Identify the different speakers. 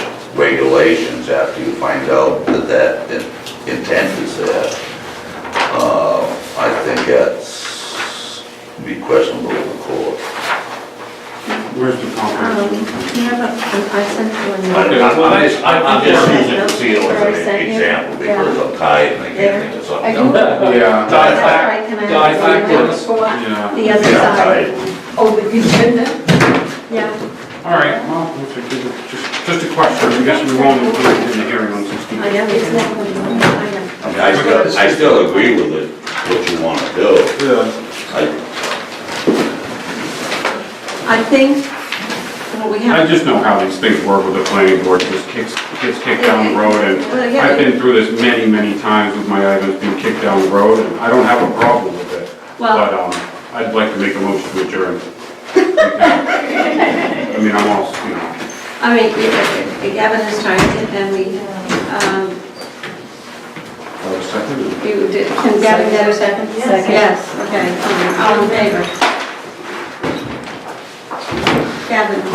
Speaker 1: regulations after you find out that that in- intent is there. Uh, I think that's be questionable in court.
Speaker 2: Where's the
Speaker 3: Um,
Speaker 2: conference?
Speaker 3: you have a, I sent you an
Speaker 1: I-
Speaker 3: email.
Speaker 1: I'm I'm just, I'm I'm just using
Speaker 3: Yeah.
Speaker 1: conceal as
Speaker 3: Or sent
Speaker 1: an
Speaker 3: you.
Speaker 1: example because I'm tired and I can't think of
Speaker 3: I
Speaker 1: something
Speaker 3: can-
Speaker 1: else.
Speaker 2: Yeah,
Speaker 3: That's all right, can I
Speaker 4: No, I
Speaker 3: have
Speaker 4: think
Speaker 3: one?
Speaker 4: it's-
Speaker 2: yeah.
Speaker 3: The
Speaker 1: Yeah, I'm
Speaker 3: other side,
Speaker 1: tired.
Speaker 5: Oh, the agenda?
Speaker 3: yeah,
Speaker 2: All right, well, that's a good- just, just a question, I guess we won't include it in the hearing on
Speaker 3: I
Speaker 2: 16.
Speaker 3: know, it's not one, I know.
Speaker 1: I mean, I still, I still agree with it, what you want to do.
Speaker 2: Yeah.
Speaker 1: I-
Speaker 3: I think what we
Speaker 2: I
Speaker 3: have.
Speaker 2: just know how these things work with the planning board, just kicks, gets kicked down the road,
Speaker 3: Well,
Speaker 2: and
Speaker 3: yeah.
Speaker 2: I've been through this many, many times with my items being kicked down the road, and I don't have a problem with it.
Speaker 3: Well-
Speaker 2: But, um, I'd like to make a motion to adjourn. I mean, I'm all, you know.
Speaker 3: I mean, you- you- Gavin has tried it, and we, um,
Speaker 2: I'll second it.
Speaker 3: you did, can Gavin get a second?
Speaker 5: Yes.
Speaker 3: Yes, okay, all in favor? Gavin?